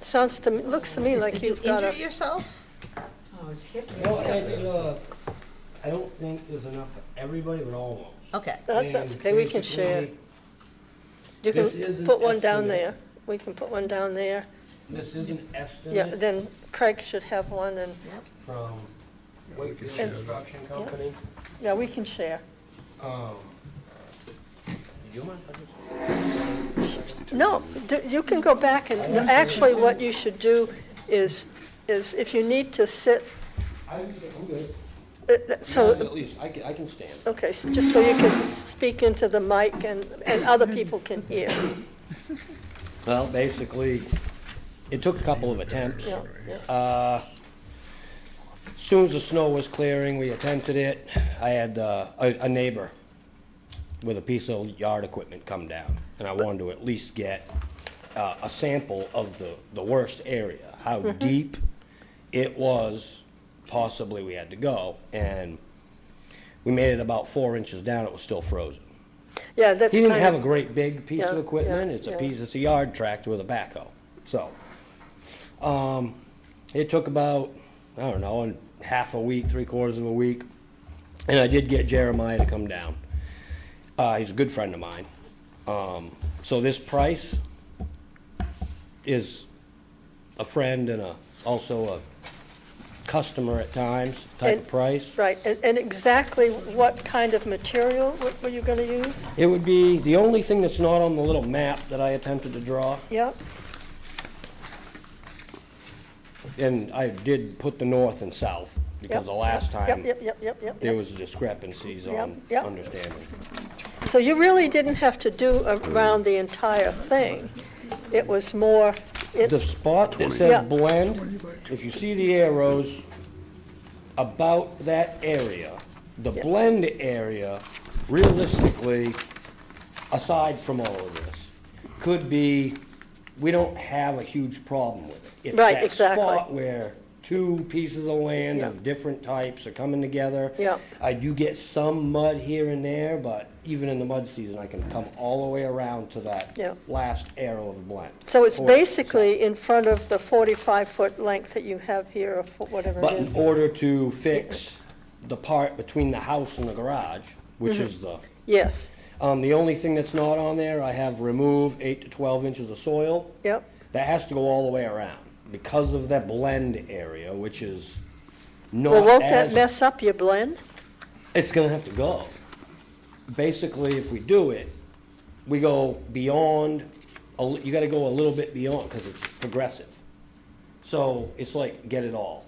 Sounds to, me looks to me like Did you you've got injure a, yourself? Oh, it's hip. Well, it's, uh, I don't think there's enough for everybody, but almost. Okay, that's, that's And okay, we can share. basically, You this is can an put one down estimate. there. We can put one down there. This is an Yeah, estimate then Craig should have one and, from Wakefield And- Construction Company. yeah, we can share. Um, you mind if I just- No, d- you can go back and, no, actually, what you should do is, is if you need to sit, I, I'm good. uh, that- so, At least, I can, I can stand. okay, s- just so you can s- speak into the mic and, and other people can hear. Well, basically, it took a couple of attempts. Yeah, yeah. Uh, Soon as the snow was clearing, we attempted it. I had uh, a a neighbor with a piece of yard equipment come down, and I wanted to at least get uh, a sample of the, the worst area, how deep it was possibly we had to go. And we made it about four inches down, it was still frozen. Yeah, that's He kind of. didn't have a great big piece Yeah, of yeah, equipment, it's a yeah. piece, it's a yard tractor with a backhoe, so. Um, it took about, I don't know, and half a week, three quarters of a week, and I did get Jeremiah to come down. Uh, he's a good friend of mine. Um, so this price is a friend and a, also a customer at times type of And- price. Right, and, and exactly what kind of material w- were you gonna use? It would be, the only thing that's not on the little map that I attempted to draw Yep, And I did put the north and south, yep. because the last Yep, time, yep, yep, yep, yep, there yep. was discrepancies Yep, on yep. understanding. So you really didn't have to do around the entire thing. It was more, it, The spot that Yeah. says blend, if you see the arrows, about that area, the Yep. blend area, realistically, aside from all of this, could be, we don't have a huge problem with it. It's Right, that exactly. spot where two pieces of land of Yeah. different types are coming together. Yeah. I do get some mud here and there, but even in the mud season, I can come all the way around to that Yeah. last arrow of the blend. so it's Or- basically in front of the forty-five foot length that you have here, or fo- whatever But it in is. order to fix the part between the house and the garage, which is Mm-hmm. the, Yes, um, the only thing that's not on there, I have remove eight to twelve inches of soil. yep, That has to go all the way around because of that blend area, which is well, not won't that as, mess up your blend? it's gonna have to go. Basically, if we do it, we go beyond, a li- you gotta go a little bit beyond, cause it's progressive. So it's like, get it all.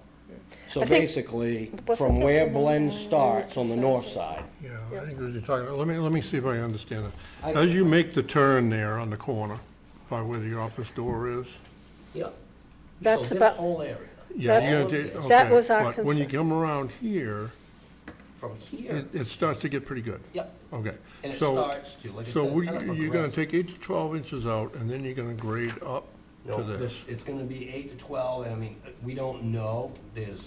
So I think- basically, What's from the where first one? blend starts on the north side, Yeah, I think what you're talking about, let me, let me see if I understand I- it. As you make the turn there on the corner, by where the office door is, Yep. That's So this about- whole area, yeah, That's- you're gonna take, okay. that was our But when you concern. come around here, from here, it, it starts to get pretty good. yep, Okay. and it So- starts to, like I So said, we- it's kind of you're gonna progressive. take eight to twelve inches out, and then you're gonna grade up to No, this. this, it's gonna be eight to twelve, and I mean, we don't know, there's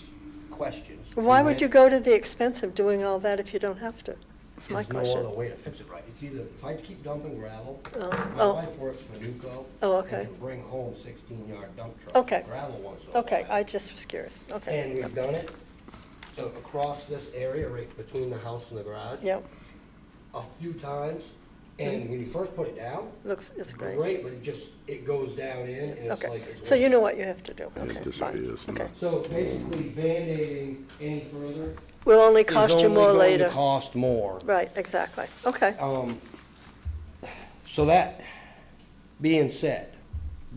questions. Why We would you went- go to the expense of doing all that if you don't have to? That's my There's no question. other way to fix it right. It's either, if I keep dumping gravel, my oh. wife works for Nuco. Oh, okay. And can bring home sixteen-yard dump truck. Okay. Gravel once in a Okay, while. I just was curious, okay. And we've done it, so across this area, right between the house and the garage. Yeah, A few times, and Mm-hmm. when you first put it down, looks, it's great. great, but it just, it goes down in, and it's Okay, like. it's so one- you know what you have to do, okay, fine, disappears, no. okay. So basically, Band-Aiding any further. Will only is cost you only more going to later. Cost more. Right, exactly, okay, Um, so that being said,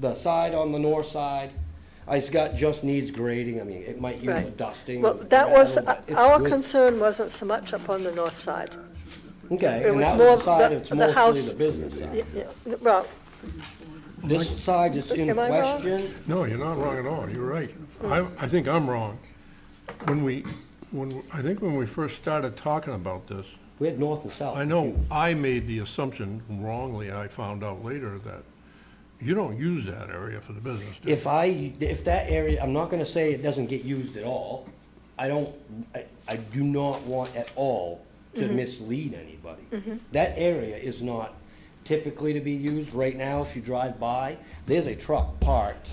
the side on the north side, it's got, just needs grading, I mean, it might use a right. dusting. Well, of that was, gravel, but it's our good. concern wasn't so much up on the north side. Okay, it and was that more was the side, the- it's the mostly house- the business side. Yeah, yeah, Well, This side that's in Am I wrong? question, No, you're not wrong at all, you're right. I, I think I'm wrong. When we, when, I think when we first started talking about this, we had north and south. I know I made the assumption wrongly, I found out later, that you don't use that area for the business. do you? If I, if that area, I'm not gonna say it doesn't get used at all. I don't, I, I do not want at all to mislead anybody. That area is not typically to be used. Right now, if you drive by, there's a truck parked